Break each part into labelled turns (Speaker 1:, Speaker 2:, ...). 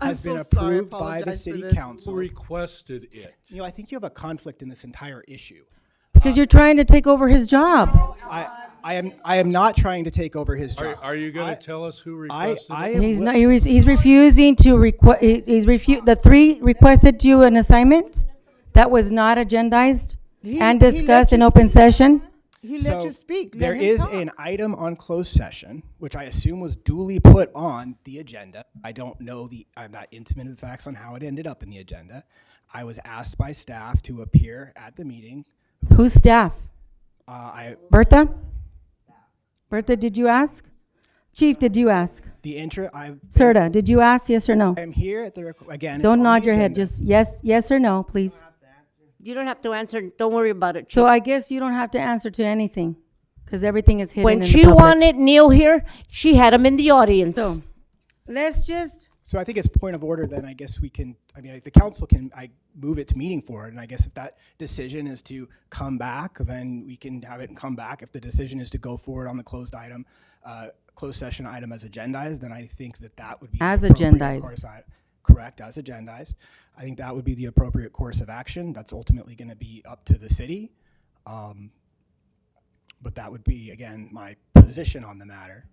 Speaker 1: has
Speaker 2: so
Speaker 1: been
Speaker 2: sorry. I
Speaker 1: approved by the
Speaker 2: apologize for
Speaker 1: city
Speaker 2: this.
Speaker 1: council.
Speaker 3: requested it.
Speaker 1: You know, I think you have a conflict in this entire issue.
Speaker 4: Because you're trying to take over his job.
Speaker 1: I, I am, I am not trying to take over his
Speaker 3: Are,
Speaker 1: job.
Speaker 3: are you
Speaker 1: I-
Speaker 3: gonna tell us who
Speaker 1: I,
Speaker 3: requested
Speaker 1: I
Speaker 3: it?
Speaker 1: am
Speaker 4: He's
Speaker 1: wi-
Speaker 4: not, he was- he's refusing to requ, he- he's refu, the three requested you an assignment that was not agendized
Speaker 2: He-
Speaker 4: and
Speaker 2: he let
Speaker 4: discussed
Speaker 2: you
Speaker 4: in open
Speaker 2: speak.
Speaker 4: session?
Speaker 2: He let
Speaker 1: So,
Speaker 2: you speak. Let
Speaker 1: There
Speaker 2: him
Speaker 1: is
Speaker 2: talk.
Speaker 1: an item on closed session, which I assume was duly put on the agenda. I don't know the, I'm not intimate of the facts on how it ended up in the agenda. I was asked by staff to appear at the meeting.
Speaker 4: Who's staff?
Speaker 1: Uh, I,
Speaker 4: Bertha? Bertha, did you ask? Chief, did you ask?
Speaker 1: the intra, I,
Speaker 4: Serta, did you ask, yes or no?
Speaker 1: I am here at the, requ- again. it's
Speaker 4: Don't
Speaker 1: on
Speaker 4: nod
Speaker 1: the
Speaker 4: your head,
Speaker 1: agenda.
Speaker 4: just yes, yes or no, please.
Speaker 5: You don't have to answer. Don't worry about it.
Speaker 4: So
Speaker 5: Chief.
Speaker 4: I guess you don't have to answer to anything, because everything is hidden in
Speaker 5: when
Speaker 4: the
Speaker 5: she
Speaker 4: public.
Speaker 5: wanted Neil here, she had him in the audience.
Speaker 4: So, let's just,
Speaker 1: So I think it's point of order, then I guess we can, I mean, the council can, I move it to meeting forward, and I guess if that decision is to come back, then we can have it come back. If the decision is to go forward on the closed item, uh, closed session item as agendized, then I think that that would be. the
Speaker 4: As
Speaker 1: appropriate
Speaker 4: agendized.
Speaker 1: course I- Correct, as agendized. I think that would be the appropriate course of action. That's ultimately gonna be up to the city. Um, But that would be, again, my position on the matter.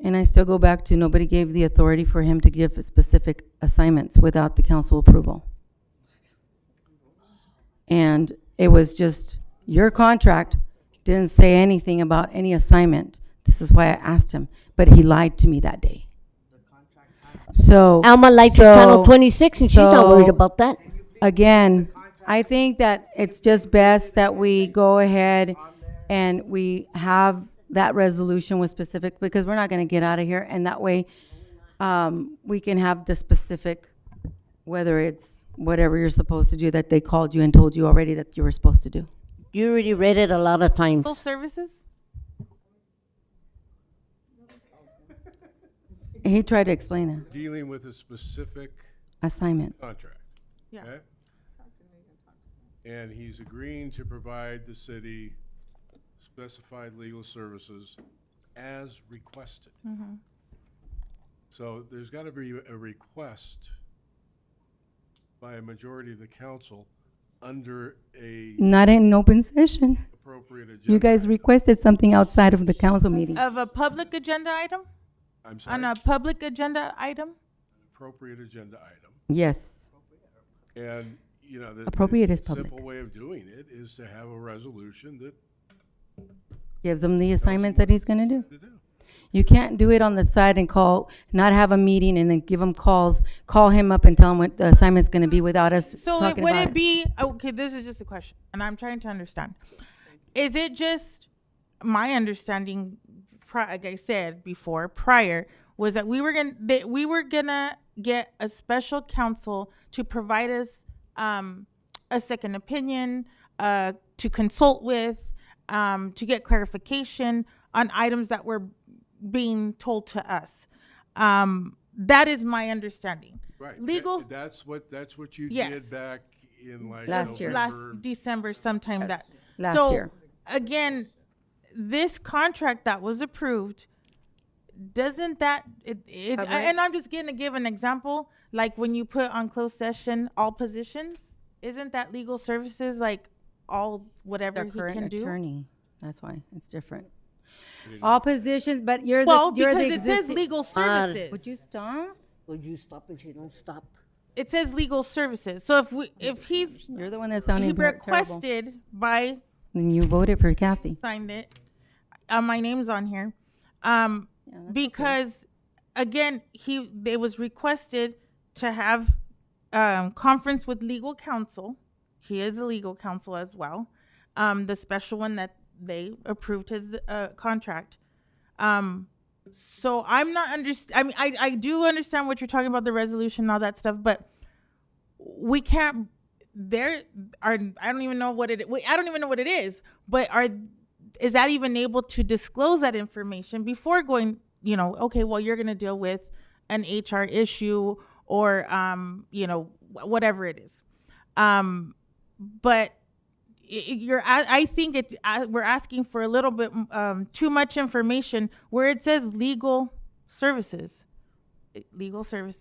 Speaker 4: and I still go back to, nobody gave the authority for him to give specific assignments without the council approval. And it was just, your contract didn't say anything about any assignment. This is why I asked him, but he lied to me that day. So.
Speaker 5: Alma likes your
Speaker 4: so-
Speaker 5: Channel 26, and she's not worried
Speaker 4: so-
Speaker 5: about that.
Speaker 4: again, I think that it's just best that we go ahead and we have that resolution with specific, because we're not gonna get out of here, and that way, um, we can have the specific, whether it's whatever you're supposed to do, that they called you and told you already that you were supposed to do.
Speaker 5: You already read it a lot of
Speaker 2: Full
Speaker 5: times.
Speaker 2: services?
Speaker 4: He tried to explain that,
Speaker 3: Dealing with a specific
Speaker 4: assignment.
Speaker 3: contract.
Speaker 2: Yeah.
Speaker 3: okay? And he's agreeing to provide the city specified legal services as requested.
Speaker 1: Mm-hmm.
Speaker 3: So there's got to be a request by a majority of the council under a
Speaker 4: Not in an open session.
Speaker 3: appropriate agenda.
Speaker 4: You guys requested something outside of the council meeting.
Speaker 2: Of a public agenda item?
Speaker 3: I'm sorry,
Speaker 2: On a public agenda item?
Speaker 3: appropriate agenda item.
Speaker 4: Yes,
Speaker 3: And, you know, the. the
Speaker 4: Appropriate is
Speaker 3: Simple
Speaker 4: public.
Speaker 3: way of doing it is to have a resolution that
Speaker 4: gives him the assignments that he's gonna do.
Speaker 3: to do.
Speaker 4: You can't do it on the side and call, not have a meeting and then give him calls, call him up and tell him what the assignment's gonna be without us
Speaker 2: So it,
Speaker 4: talking
Speaker 2: would
Speaker 4: about
Speaker 2: it
Speaker 4: it.
Speaker 2: be, okay, this is just a question, and I'm trying to understand. Is it just, my understanding, pri- like I said before, prior, was that we were gonna, that we were gonna get a special counsel to provide us, um, a second opinion, uh, to consult with, um, to get clarification on items that were being told to us. Um, that is my understanding.
Speaker 3: Right. that-
Speaker 2: Legal
Speaker 3: That's what, that's what you
Speaker 2: Yes.
Speaker 3: did back in like
Speaker 4: Last year.
Speaker 2: last
Speaker 3: November.
Speaker 2: December sometime that.
Speaker 4: last
Speaker 2: so,
Speaker 4: year.
Speaker 2: Again, this contract that was approved, doesn't that, it, it's,
Speaker 4: Cover it?
Speaker 2: and I'm just gonna give an example, like when you put on closed session, all positions, isn't that legal services, like all, whatever
Speaker 4: Their
Speaker 2: he
Speaker 4: current
Speaker 2: can do?
Speaker 4: attorney, that's why, it's different. All positions, but you're
Speaker 2: Well,
Speaker 4: the, you're the
Speaker 2: because it says
Speaker 4: existing.
Speaker 2: legal
Speaker 5: God.
Speaker 2: services.
Speaker 4: Would you stop?
Speaker 5: Would you stop and she don't stop?
Speaker 2: It says legal services, so if we, if he's,
Speaker 4: You're the one that's
Speaker 2: he
Speaker 4: sounding ter- terrible.
Speaker 2: requested by
Speaker 4: And you voted for Kathy.
Speaker 2: signed it. Uh, my name's on here. Um, because again, he it was requested to have um, conference with legal counsel. He is a legal counsel as well. Um, the special one that they approved his uh, contract. Um, so I'm not under. I mean, I I do understand what you're talking about the resolution and all that stuff, but we can't there are i don't even know what it wait, i don't even know what it is but are is that even able to disclose that information before going you know okay well you're going to deal with an hr issue or um you know wh- whatever it is um but i- i- you're a- i think it I- we're asking for a little bit um too much information where it says legal services legal services